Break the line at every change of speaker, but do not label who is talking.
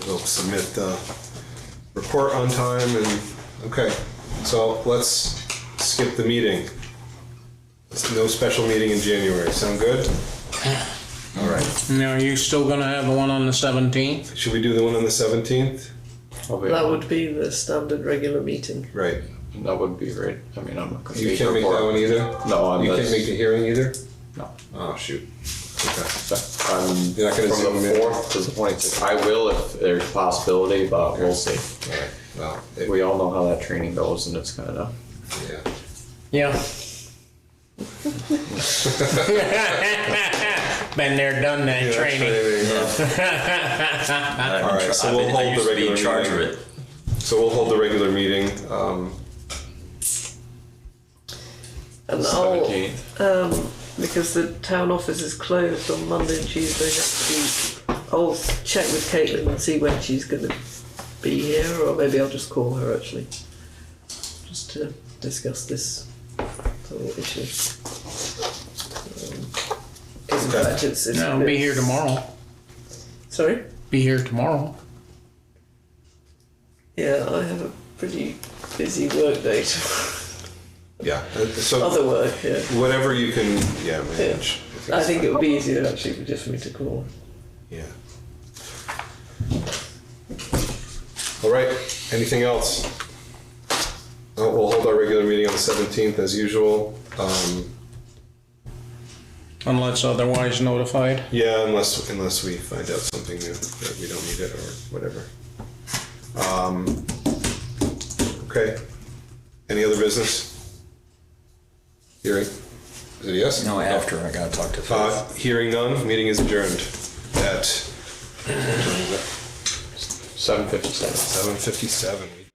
they'll submit the report on time and, okay. So let's skip the meeting. It's No special meeting in January, sound good? All right,
Now, are you still gonna have the one on the seventeenth?
should we do the one on the seventeenth?
That would be the standard regular meeting.
Right,
That would be great. I mean, I'm not gonna
you
be
can't make
for-
that one either?
No, I'm
You can't
just-
make the hearing either?
No.
Oh, shoot. Okay.
So, I'm
You're not gonna
from
zoom
the
in?
fourth to the twenty-sixth. I will if there's possibility, but we'll see.
All right, well, it-
We all know how that training goes, and it's kind
Oh.
of
yeah.
Yeah. Been there, done that training.
All right, so we'll hold the regular meeting. So we'll hold the regular meeting. Um,
And I'll,
seventeenth.
because the town office is closed on Monday and Tuesday next week, I'll check with Caitlin and see when she's going to be here, or maybe I'll just call her actually, just to discuss this whole issue. Um, 'cause in
Okay.
fact it's- it's a
I'll be
bit-
here tomorrow.
Sorry?
Be here tomorrow.
Yeah, I have a pretty busy work day,
yeah, so
other work, yeah.
whatever you can, yeah, manage.
I think it would be easier actually for just for me to call.
Yeah. All right, anything else? Uh, We'll hold our regular meeting on the seventeenth as usual. Um,
Unless otherwise notified.
Yeah, unless unless we find out something new that we don't need it or whatever. Um, okay. Any other business? Hearing. Is it a yes?
No, after I gotta talk to Faith.
Uh, hearing none. Meeting is adjourned at
Seven fifty-seven.
seven fifty-seven.